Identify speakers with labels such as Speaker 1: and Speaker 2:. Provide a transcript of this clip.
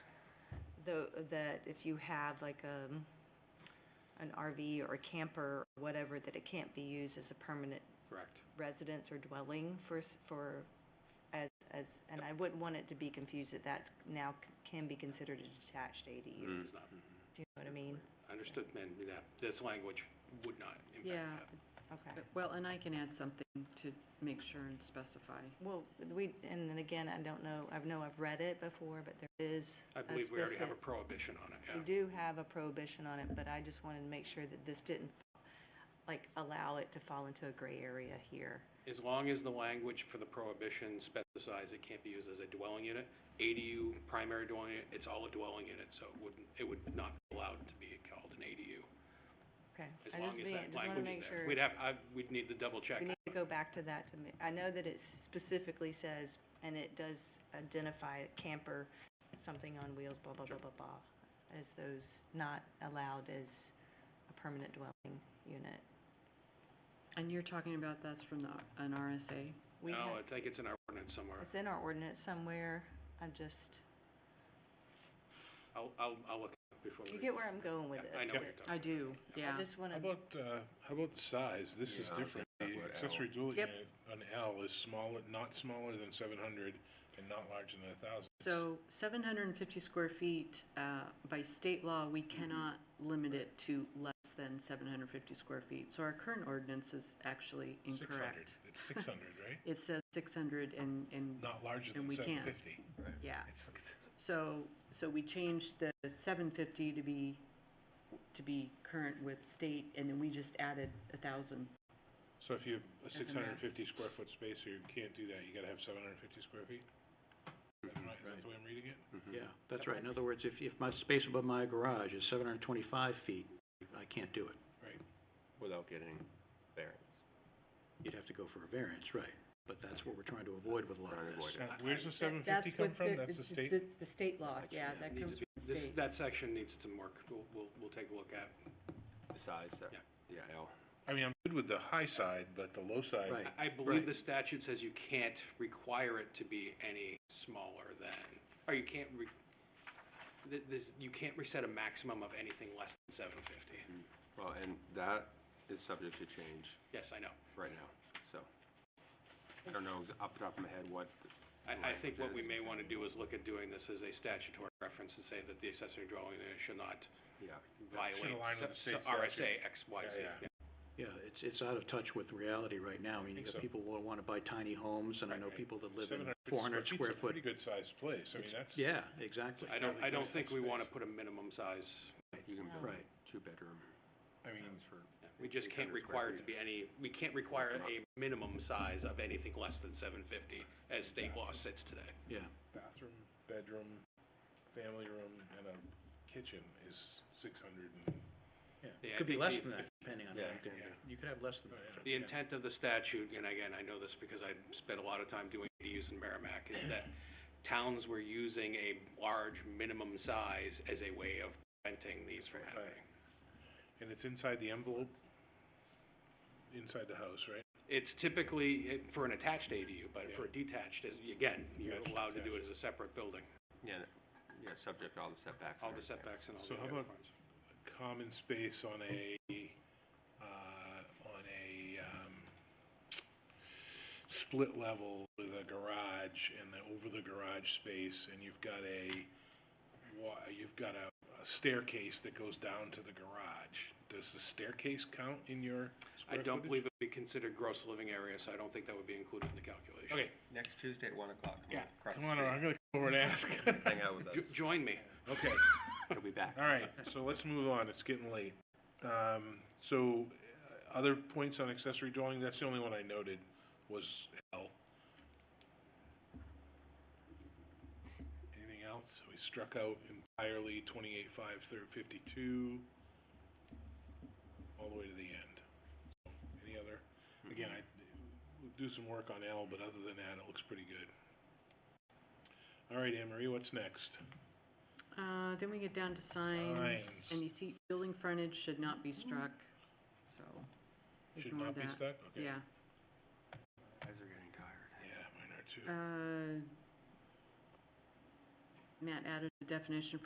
Speaker 1: the, that if you have like um an RV or a camper, or whatever, that it can't be used as a permanent
Speaker 2: Correct.
Speaker 1: residence or dwelling for, s- for, as, as, and I wouldn't want it to be confused that that's now c- can be considered a detached ADU. Do you
Speaker 2: It is not.
Speaker 1: know what I mean?
Speaker 2: Understood, and that, this language would not
Speaker 3: Yeah,
Speaker 2: impact that.
Speaker 1: Okay.
Speaker 3: well, and I can add something to make sure and specify.
Speaker 1: Well, we, and then again, I don't know, I know I've read it before, but there is
Speaker 2: I
Speaker 1: a
Speaker 2: believe we already have a
Speaker 1: specific-
Speaker 2: prohibition on it,
Speaker 1: We
Speaker 2: yeah.
Speaker 1: do have a prohibition on it, but I just wanted to make sure that this didn't, like, allow it to fall into a gray area here.
Speaker 2: As long as the language for the prohibition specifies it can't be used as a dwelling unit, ADU, primary dwelling, unit, it's all a dwelling unit, so it wouldn't, it would not be allowed to be called an ADU.
Speaker 1: Okay?
Speaker 2: As
Speaker 1: I
Speaker 2: long
Speaker 1: just
Speaker 2: as
Speaker 1: mean-
Speaker 2: that
Speaker 1: just wanna
Speaker 2: language
Speaker 1: make
Speaker 2: is there.
Speaker 1: sure-
Speaker 2: We'd have, I, we'd need to double check.
Speaker 1: We need to go back to that to me. I know that it specifically says, and it does identify a camper, something on wheels, blah, blah, blah, blah, blah, as those not allowed as a permanent dwelling unit.
Speaker 3: And you're talking about that's from the, an RSA?
Speaker 1: We
Speaker 2: No,
Speaker 1: have-
Speaker 2: I think it's in our ordinance somewhere.
Speaker 1: It's in our ordinance somewhere. I'm just,
Speaker 2: I'll, I'll, I'll look before we.
Speaker 1: you get where I'm going with this.
Speaker 2: I know what you're
Speaker 1: that
Speaker 2: talking
Speaker 3: I do, yeah.
Speaker 1: I just want
Speaker 4: How
Speaker 1: to,
Speaker 4: about, uh, how about the size? This is
Speaker 5: Yeah, I was
Speaker 4: different. The
Speaker 5: thinking about L.
Speaker 4: accessory dual
Speaker 3: Yep.
Speaker 4: unit on L is smaller, not smaller than seven hundred and not larger than a thousand.
Speaker 3: So 750 square feet, uh, by state law, we cannot limit it to less than 750 square feet. So our current ordinance is actually
Speaker 4: Six hundred.
Speaker 3: incorrect.
Speaker 4: It's six hundred, right?
Speaker 3: It says 600 and, and,
Speaker 4: Not larger
Speaker 3: And
Speaker 4: than
Speaker 3: we can't.
Speaker 4: seven fifty.
Speaker 3: yeah.
Speaker 4: It's,
Speaker 3: So, so we changed the 750 to be, to be current with state, and then we just added a 1,000.
Speaker 4: so if you have a
Speaker 3: a
Speaker 4: six hundred and fifty
Speaker 3: max.
Speaker 4: square foot space, you can't do that. You gotta have seven hundred and fifty square feet? Is that right? Is that the way I'm reading it?
Speaker 6: Yeah,
Speaker 2: Mm-hmm.
Speaker 6: that's right. In other words, if, if my space above my garage is 725 feet, I can't do it.
Speaker 4: Right.
Speaker 5: without getting variance.
Speaker 6: You'd have to go for a variance, right? But that's what we're trying to avoid with a lot
Speaker 5: Trying to
Speaker 6: of this.
Speaker 5: avoid it.
Speaker 4: Now, Where's the seven fifty come from? That's the state?
Speaker 3: The state law, yeah, that
Speaker 2: needs
Speaker 3: comes
Speaker 2: to
Speaker 3: from
Speaker 2: be-
Speaker 3: the
Speaker 2: This,
Speaker 3: state.
Speaker 2: that section needs some work. We'll, we'll, we'll take a look at.
Speaker 5: The size, uh,
Speaker 2: Yeah.
Speaker 5: yeah, L.
Speaker 4: I mean, I'm good with the high side, but the low side.
Speaker 6: Right.
Speaker 2: I I believe the statute says you can't require it to be any smaller than, or you can't re, th- this, you can't reset a maximum of anything less than seven fifty.
Speaker 5: Mm-hmm. Well, and that is subject to change
Speaker 2: Yes, I know.
Speaker 5: right now, so. I don't know off the top of my head what. the
Speaker 2: I, I think what we
Speaker 5: language
Speaker 2: may
Speaker 5: is.
Speaker 2: want to do is look at doing this as a statutory reference and say that the accessory dwelling unit should not
Speaker 5: Yeah,
Speaker 2: violate
Speaker 4: align with the
Speaker 2: se- se-
Speaker 4: state
Speaker 2: RSA
Speaker 4: statute.
Speaker 2: X, Y, Z.
Speaker 4: Yeah, yeah.
Speaker 6: Yeah, it's, it's out of touch with reality right now. I mean, you
Speaker 4: Think
Speaker 6: got
Speaker 4: so.
Speaker 6: people who want to buy tiny homes, and I know
Speaker 4: Right.
Speaker 6: people that live in
Speaker 4: 750
Speaker 6: 400 square
Speaker 4: feet's a
Speaker 6: foot.
Speaker 4: Pretty good sized place. I mean,
Speaker 6: It's-
Speaker 4: that's.
Speaker 6: Yeah, exactly.
Speaker 2: I don't,
Speaker 4: fairly
Speaker 2: I don't
Speaker 4: decent
Speaker 2: think we want to
Speaker 4: space.
Speaker 2: put a minimum size.
Speaker 5: you can build
Speaker 6: Right.
Speaker 5: a two-bedroom.
Speaker 4: I mean,
Speaker 5: house for
Speaker 2: We just can't
Speaker 5: 800 square
Speaker 2: require it to
Speaker 5: feet.
Speaker 2: be any, we can't require a minimum size of anything less than seven fifty as state law sits today.
Speaker 6: Yeah,
Speaker 4: bathroom, bedroom, family room, and a kitchen is six hundred and,
Speaker 6: yeah.
Speaker 2: Yeah, I
Speaker 6: It could be
Speaker 2: think
Speaker 6: less
Speaker 2: the-
Speaker 6: than that, depending on, how
Speaker 5: Yeah,
Speaker 6: you could-
Speaker 4: yeah.
Speaker 6: you could have less than
Speaker 4: Oh, yeah.
Speaker 6: that.
Speaker 2: The
Speaker 6: yeah.
Speaker 2: intent of the statute, and again, I know this because I spent a lot of time doing ADUs in Merrimack, is that towns were using a large minimum size as a way of preventing these from happening.
Speaker 4: and it's inside the envelope, inside the house, right?
Speaker 2: It's typically it- for an attached ADU, but for a detached, is again, you're
Speaker 4: Yeah,
Speaker 2: allowed to do it as a separate building,
Speaker 5: Yeah, that- yeah, subject to all the setbacks. and
Speaker 2: all the
Speaker 5: everything else.
Speaker 2: setbacks and all the
Speaker 4: So how
Speaker 2: other
Speaker 4: about-
Speaker 2: parts.
Speaker 4: Common space on a, uh, on a, um, split level with a garage and the, over the garage space, and you've got a wa, you've got a, a staircase that goes down to the garage. Does the staircase count in your
Speaker 2: I
Speaker 4: square
Speaker 2: don't
Speaker 4: footage?
Speaker 2: believe it'd be considered gross living area, so I don't think that would be included in the calculation.
Speaker 4: Okay,
Speaker 5: Next Tuesday at 1 o'clock. come on,
Speaker 4: Yeah,
Speaker 5: across
Speaker 4: come
Speaker 5: the
Speaker 4: on, over. I'm
Speaker 5: street.
Speaker 4: gonna come over and ask.
Speaker 5: Hang out with us.
Speaker 2: Jo- Join me.
Speaker 4: Okay,
Speaker 5: He'll be back.
Speaker 4: all right, so let's move on, it's getting late. Um, so, uh, other points on accessory dwelling, that's the only one I noted, was L. Anything else? We struck out entirely twenty-eight, five, thir- fifty-two, all the way to the end. Any other, again, I, we'll do some work on L, but other than that, it looks pretty good. All right, Anne Marie, what's next?
Speaker 3: Uh, Then we get down to signs,
Speaker 4: Signs.
Speaker 3: and you see building frontage should not be struck, so
Speaker 4: Should
Speaker 3: ignore
Speaker 4: not be
Speaker 3: that.
Speaker 4: stuck? Okay.
Speaker 3: Yeah.
Speaker 5: Guys are getting tired.
Speaker 4: Yeah, mine are
Speaker 3: Uh,
Speaker 4: too.
Speaker 3: Matt added the definition